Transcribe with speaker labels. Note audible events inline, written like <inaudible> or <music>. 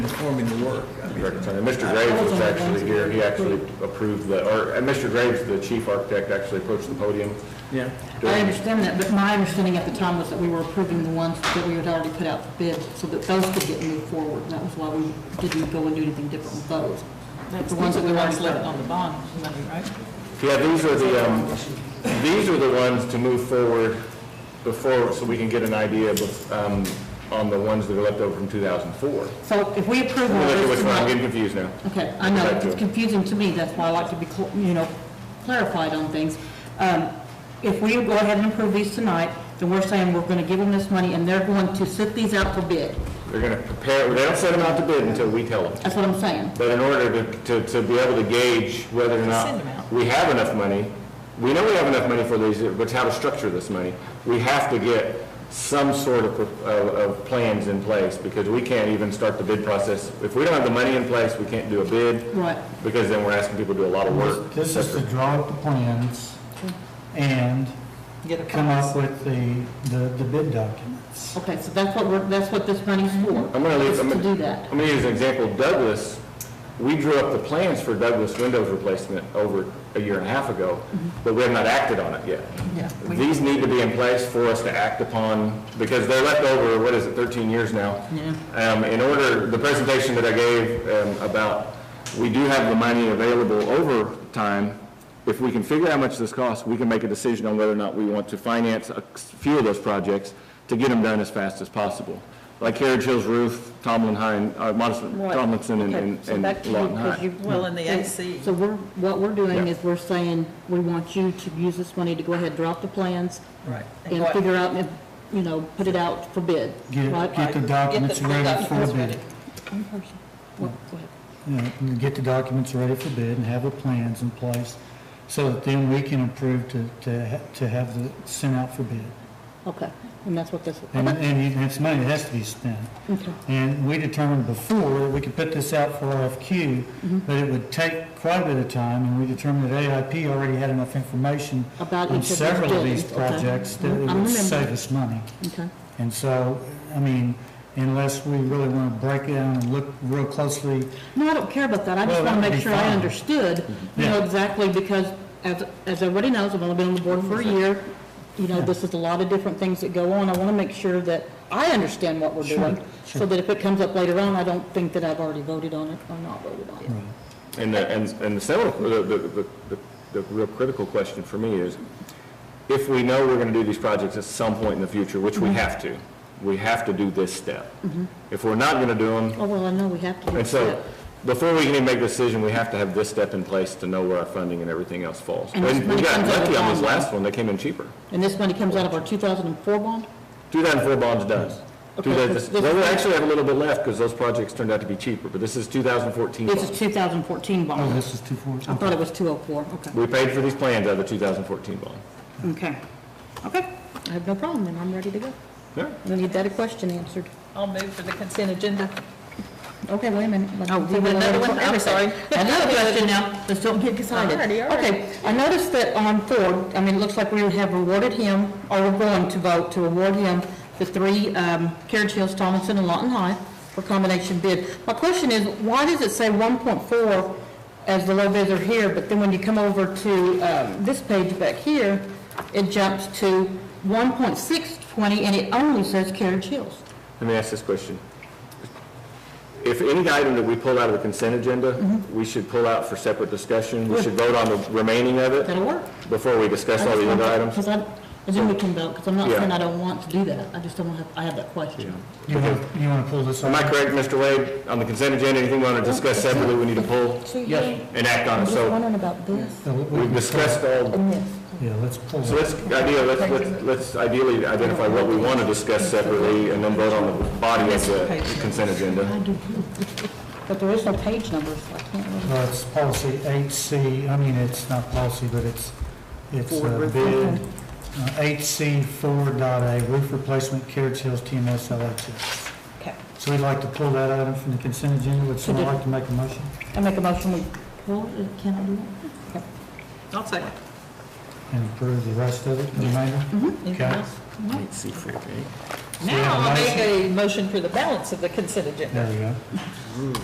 Speaker 1: performing the work. I mean,
Speaker 2: Correct, Tony. Mr. Graves was actually here, he actually approved the, or, and Mr. Graves, the chief architect, actually approached the podium.
Speaker 1: Yeah,
Speaker 2: during-
Speaker 3: I understand that, but my understanding at the time was that we were approving the ones that we had already put out for bid, so that those could get moved forward. And That was why we didn't go and do anything different with those.
Speaker 4: That's
Speaker 3: The ones that we already put
Speaker 4: left
Speaker 3: out.
Speaker 4: on the bond money, right?
Speaker 2: Yeah, these are the, um, these are the ones to move forward before, so we can get an idea, bef- um, on the ones that are left over from two thousand four.
Speaker 3: So if we
Speaker 2: Let
Speaker 3: approve
Speaker 2: me
Speaker 3: all
Speaker 2: look at
Speaker 3: this
Speaker 2: which one, I'm
Speaker 3: tonight-
Speaker 2: getting confused now.
Speaker 3: Okay, I know, it's confusing to me, that's why I like to be, cl- you know, clarified on things. Um, If we go ahead and approve these tonight, then we're saying we're gonna give them this money, and they're going to sit these out for bid.
Speaker 2: They're gonna prepare, they don't send them out to bid until we tell them.
Speaker 3: That's what I'm saying.
Speaker 2: But in order to, to, to be able to gauge whether or
Speaker 4: Send
Speaker 2: not
Speaker 4: them out.
Speaker 2: we have enough money, we know we have enough money for these, but how to structure this money, we have to get some sort of, pro- of, of plans in place, because we can't even start the bid process. If we don't have the money in place, we can't do a bid.
Speaker 3: Right.
Speaker 2: Because then we're asking people to do a lot of work.
Speaker 5: This is to draw up the plans and
Speaker 4: Get a
Speaker 5: come
Speaker 4: price.
Speaker 5: up with the, the the bid documents.
Speaker 3: Okay, so that's what we're, that's what this money's for.
Speaker 2: I'm gonna leave,
Speaker 3: is
Speaker 2: I'm
Speaker 3: To do
Speaker 2: gonna,
Speaker 3: that.
Speaker 2: I'm gonna use an example, Douglas, we drew up the plans for Douglas windows replacement over a year and a half ago,
Speaker 3: Mm-hmm.
Speaker 2: but we have not acted on it yet.
Speaker 4: Yeah, we-
Speaker 2: These need to be in place for us to act upon, because they're left over, what is it, 13 years now? Um, In order, the presentation that I gave um, about, we do have the money available over time. If we can figure out how much this costs, we can make a decision on whether or not we want to finance a few of those projects to get them done as fast as possible. Like Carriage Hills Roof, Tomlin Hine, uh, Modest-
Speaker 3: Right.
Speaker 2: Tomlinson and-
Speaker 3: Okay,
Speaker 2: and
Speaker 3: so
Speaker 2: and
Speaker 3: back to you,
Speaker 2: Lawton
Speaker 3: 'cause
Speaker 2: High.
Speaker 3: you-
Speaker 4: Well, and the AC.
Speaker 3: So we're, what we're doing
Speaker 2: Yeah.
Speaker 3: is we're saying, we want you to use this money to go ahead, drop the plans,
Speaker 5: Right.
Speaker 3: and
Speaker 4: Right.
Speaker 3: figure out, and, you know, put it out for bid,
Speaker 5: Get,
Speaker 3: right?
Speaker 5: get the documents
Speaker 4: the
Speaker 5: ready for
Speaker 4: documents ready.
Speaker 5: bid.
Speaker 3: One person. Well, go ahead.
Speaker 5: You know, and Get the documents ready for bid and have the plans in place so that then we can approve to, to, ha- to have the, sent out for bid.
Speaker 3: Okay, and that's what this,
Speaker 5: And,
Speaker 3: okay,
Speaker 5: and it's money that has to be spent.
Speaker 3: okay,
Speaker 5: And we determined before, that we could put this out for RFQ,
Speaker 4: Mm-hmm.
Speaker 5: but it would take quite a bit of time, and we determined that AIP already had enough information
Speaker 3: About
Speaker 5: on
Speaker 3: each of these
Speaker 5: several of
Speaker 3: buildings,
Speaker 5: these
Speaker 3: okay.
Speaker 5: projects that it
Speaker 3: I'm
Speaker 5: would
Speaker 3: remembering.
Speaker 5: save us money.
Speaker 3: okay.
Speaker 5: And so, I mean, unless we really want to break it down and look real closely,
Speaker 3: No, I don't care about that, I just
Speaker 5: Well,
Speaker 3: want
Speaker 5: that
Speaker 3: to
Speaker 5: would
Speaker 3: make
Speaker 5: be
Speaker 3: sure I
Speaker 5: fine.
Speaker 3: understood, you know,
Speaker 5: Yeah.
Speaker 3: exactly, because as, as everybody knows, I've only been on the board for a year, you know, this is a lot of different things that go on, I want to make sure that I understand what we're doing, so that if it comes up later on, I don't think that I've already voted on it or not voted on it.
Speaker 2: And the, and, and the seminal, the, the, the- the, the real critical question for me is, if we know we're gonna do these projects at some point in the future, which
Speaker 3: Mm-hmm.
Speaker 2: we have to, we have to do this step. If we're not gonna do them,
Speaker 3: Oh, well, I know we have to do
Speaker 2: and so,
Speaker 3: that.
Speaker 2: before we can even make a decision, we have to have this step in place to know where our funding and everything else falls.
Speaker 3: And this
Speaker 2: And we
Speaker 3: money
Speaker 2: got
Speaker 3: comes out of
Speaker 2: lucky on this
Speaker 3: bond,
Speaker 2: last one, they came in cheaper.
Speaker 3: And this money comes out of our 2004 bond?
Speaker 2: Two thousand four bonds done.
Speaker 3: Okay,
Speaker 2: Two
Speaker 3: this-
Speaker 2: thousand,
Speaker 3: this-
Speaker 2: well, we actually have a little bit left, because those projects turned out to be cheaper, but this is two thousand fourteen
Speaker 3: This is
Speaker 2: bonds.
Speaker 3: 2014
Speaker 5: oh,
Speaker 3: bond.
Speaker 5: this is too far.
Speaker 3: I thought it was 204, okay.
Speaker 2: We paid for these plans out of the two thousand fourteen bond.
Speaker 3: Okay, okay, I have no problem, then I'm ready to go.
Speaker 2: Yeah.
Speaker 3: We need that question answered.
Speaker 4: I'll move for the consent agenda.
Speaker 3: Okay, wait a minute.
Speaker 4: Oh, we have another one? I'm sorry.
Speaker 3: <laughs> Another question now, let's don't get excited.
Speaker 4: Alrighty, alright.
Speaker 3: Okay, I noticed that on Ford, I mean, it looks like we have awarded him, or we're going to vote to award him the three um, Carriage Hills, Tomlinson, and Lawton High for combination bid. My question is, why does it say 1.4 as the low bidder here, but then when you come over to um, this page back here, it jumps to 1.620, and it only says Carriage Hills?
Speaker 2: Let me ask this question. If any item that we pull out of the consent agenda, we should pull out for separate discussion. We should vote on the remaining of it
Speaker 3: That'll work.
Speaker 2: before we discuss all the other items.
Speaker 3: Because I, I didn't look about, because I'm not
Speaker 2: Yeah.
Speaker 3: saying I don't want to do that, I just don't have, I have that question.
Speaker 5: You want, you want to pull this off?
Speaker 2: Am I correct, Mr. Wade? On the consent agenda, anything we want to discuss separately, we need to pull
Speaker 3: Yes.
Speaker 2: and act on
Speaker 3: I'm
Speaker 2: it.
Speaker 3: just
Speaker 2: So
Speaker 3: wondering about this
Speaker 5: So Uh, we- we
Speaker 2: we've
Speaker 5: can-
Speaker 2: discussed all,
Speaker 3: and this.
Speaker 5: Yeah, let's pull
Speaker 2: so
Speaker 5: it.
Speaker 2: let's, idea, let's, let's- let's ideally identify what we want to discuss separately and then vote on the body of the consent agenda.
Speaker 3: But there is no page number, so I can't really.
Speaker 5: Well, Uh, it's policy eight C, I mean, it's not policy, but it's, it's
Speaker 3: Forward
Speaker 5: uh,
Speaker 3: roof,
Speaker 5: bid, uh,
Speaker 3: okay.
Speaker 5: eight C four dot A, roof replacement, Carriage Hills, TMS, LHS.
Speaker 3: Okay.
Speaker 5: So we'd like to pull that item from the consent agenda, would someone
Speaker 3: Today.
Speaker 5: like to make a motion?
Speaker 3: I make a motion, we pull, it. uh, can I do that?
Speaker 4: I'll second.
Speaker 5: And approve the rest of it, the remainder?
Speaker 4: Anything
Speaker 5: Okay.
Speaker 4: else?
Speaker 2: Let's see, okay.
Speaker 5: we have
Speaker 3: Now
Speaker 5: a
Speaker 3: I'll make
Speaker 5: motion.
Speaker 3: a motion for the balance of the consent agenda.
Speaker 5: There we go.